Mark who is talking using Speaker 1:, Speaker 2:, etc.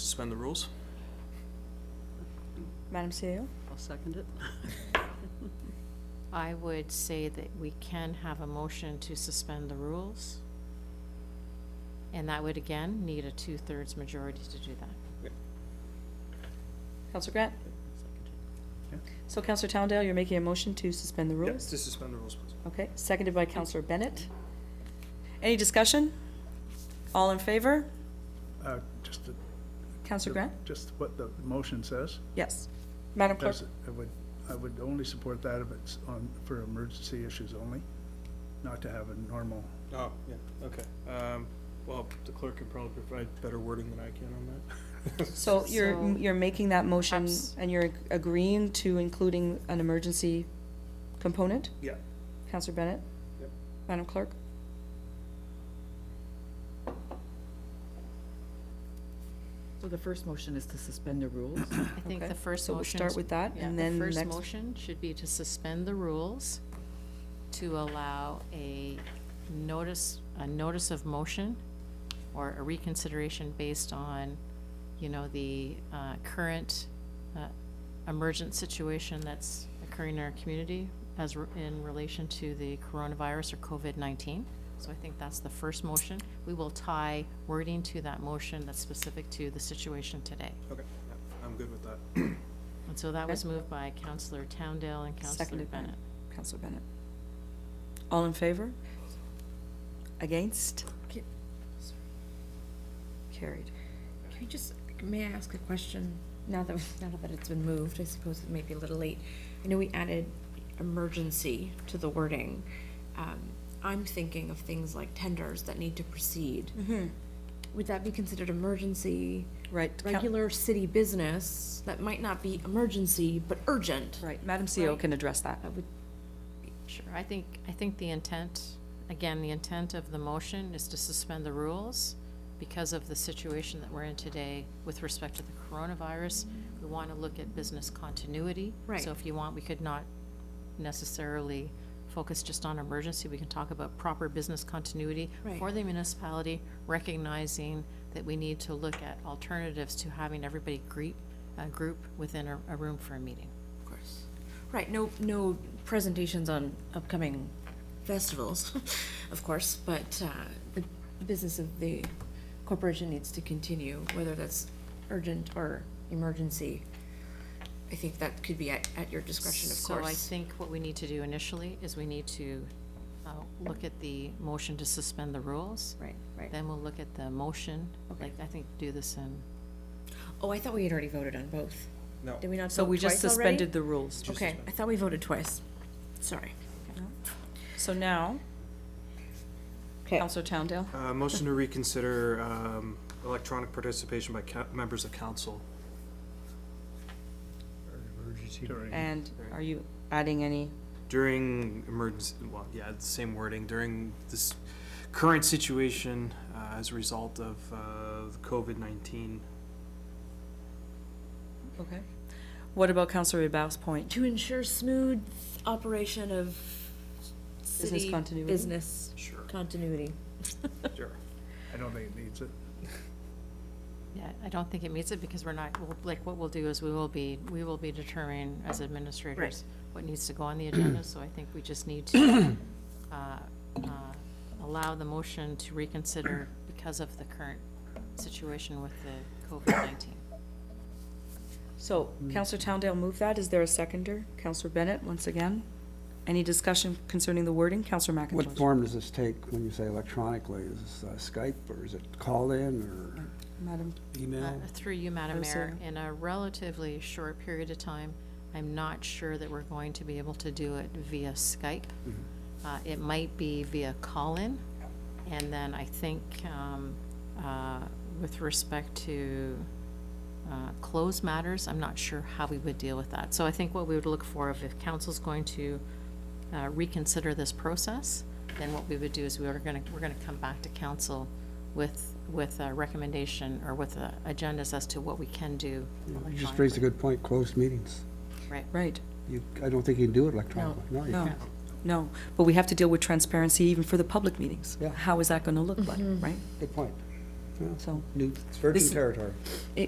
Speaker 1: suspend the rules?
Speaker 2: Madam
Speaker 3: E
Speaker 2: CEO?
Speaker 4: I'll second it.
Speaker 3: I would say that we can have a motion to suspend the rules. And that would again need a two-thirds majority to do that.
Speaker 2: Counselor Grant?
Speaker 4: Second it.
Speaker 2: So Counselor Towndale, you're making a motion to suspend the
Speaker 1: Yes,
Speaker 2: rules?
Speaker 1: to suspend the rules, please.
Speaker 2: Okay, seconded by Counselor Bennett. Any discussion? All in favor?
Speaker 5: Uh, Just the-
Speaker 2: Counselor Grant?
Speaker 5: Just what the motion says.
Speaker 2: Yes. Madam Clerk?
Speaker 5: Does it- I would, I would only support that if it's on, for emergency issues only, not to have a normal,
Speaker 1: Oh, yeah, okay. Um, well, the clerk can probably provide better wording than I can on that.
Speaker 2: So you're,
Speaker 3: So-
Speaker 2: you're making that motion
Speaker 3: Abs-
Speaker 2: and you're agreeing to including an emergency component?
Speaker 1: Yeah.
Speaker 2: Counselor Bennett?
Speaker 1: Yep.
Speaker 2: Madam Clerk?
Speaker 4: So the first motion is to suspend the rules?
Speaker 3: I think
Speaker 2: Okay,
Speaker 3: the first
Speaker 2: So we'll
Speaker 3: motion.
Speaker 2: start with that
Speaker 3: yeah,
Speaker 2: and
Speaker 3: the
Speaker 2: then next.
Speaker 3: first motion should be to suspend the rules to allow a notice, a notice of motion or a reconsideration based on, you know, the uh, current uh, emergent situation that's occurring in our community as re- in relation to the coronavirus or COVID-19. So I think that's the first motion. We will tie wording to that motion that's specific to the situation today.
Speaker 1: Okay, yeah, I'm good with that.
Speaker 3: And so that
Speaker 2: Okay.
Speaker 3: was moved by Counselor Towndale and Counselor
Speaker 2: Seconded by
Speaker 3: Bennett.
Speaker 2: Counselor Bennett. All in favor? Against? Carried.
Speaker 6: Can I just, may I ask a question? Now that, now that it's been moved, I suppose it may be a little late. I know we added emergency to the wording. Um, I'm thinking of things like tenders that need to proceed. Would that be considered emergency?
Speaker 2: Right. Coun-
Speaker 6: Regular city business that might not be emergency, but urgent?
Speaker 2: Right, Uh, Madam CEO
Speaker 6: Right.
Speaker 2: can address that.
Speaker 6: I would,
Speaker 3: Sure, I think, I think the intent, again, the intent of the motion is to suspend the rules because of the situation that we're in today with respect to the coronavirus. We want to look at business continuity.
Speaker 6: Right.
Speaker 3: So if you want, we could not necessarily focus just on emergency. We can talk about proper business continuity
Speaker 6: Right.
Speaker 3: for the municipality, recognizing that we need to look at alternatives to having everybody greet, uh, group within a, a room for a meeting.
Speaker 6: of course. Right, no, no presentations on upcoming festivals, of course, but uh, the business of the corporation needs to continue, whether that's urgent or emergency. I think that could be at, at your discretion, of
Speaker 3: So I
Speaker 6: course.
Speaker 3: think what we need to do initially is we need to uh, look at the motion to suspend the rules.
Speaker 6: Right, right.
Speaker 3: Then we'll look at the motion, like, I think, do this in,
Speaker 6: Oh, I thought we had already voted on both.
Speaker 1: No.
Speaker 6: Did we not vote twice
Speaker 2: So we just
Speaker 6: already?
Speaker 2: suspended the rules.
Speaker 1: Just
Speaker 6: Okay,
Speaker 1: suspend.
Speaker 6: I thought we voted twice. Sorry.
Speaker 2: So now,
Speaker 6: Okay.
Speaker 2: Counselor Towndale,
Speaker 1: Uh, motion to reconsider, um, electronic participation by coun- members of council.
Speaker 5: during.
Speaker 2: and are you adding any?
Speaker 1: During emergency, well, yeah, it's the same wording, during this current situation, uh, as a result of, uh, the COVID-19.
Speaker 2: Okay. What about Counselor Rebus' point?
Speaker 6: To ensure smooth operation of
Speaker 2: Business
Speaker 6: city
Speaker 2: continuity?
Speaker 6: business
Speaker 1: Sure.
Speaker 6: continuity.
Speaker 1: Sure.
Speaker 5: I don't think it needs it.
Speaker 3: yeah, I don't think it meets it because we're not, we'll- like, what we'll do is we will be, we will be determining as administrators what needs to go on the agenda, so I think we just need to uh, uh, allow the motion to reconsider because of the current situation with the COVID-19.
Speaker 2: So Counselor Towndale moved that. Is there a seconder? Counselor Bennett, once again. Any discussion concerning the wording? Counselor McIntosh?
Speaker 7: What form does this take when you say electronically? Is this uh, Skype or is it call in or
Speaker 2: Madam,
Speaker 3: Uh,
Speaker 7: email?
Speaker 3: Through you, Madam
Speaker 2: I'm
Speaker 3: Mayor,
Speaker 2: sorry.
Speaker 3: in a relatively short period of time, I'm not sure that we're going to be able to do it via Skype. Uh, It might be via call-in, and then I think um, uh, with respect to uh, closed matters, I'm not sure how we would deal with that. So I think what we would look for, if if council's going to uh, reconsider this process, then what we would do is we are going to, we're going to come back to council with, with a recommendation or with uh, agendas as to what we can do
Speaker 7: You just raised
Speaker 3: electronically.
Speaker 7: a good point, closed meetings.
Speaker 3: Right.
Speaker 2: right.
Speaker 7: You, I don't think you can do it electronically. No, you
Speaker 2: No,
Speaker 7: can't.
Speaker 2: no, but we have to deal with transparency even for the public meetings.
Speaker 7: Yeah.
Speaker 2: Mm-hmm. How is that gonna look like, right?
Speaker 7: Good point. Yeah,
Speaker 2: So,
Speaker 7: New, it's virgin
Speaker 2: This-
Speaker 7: territory.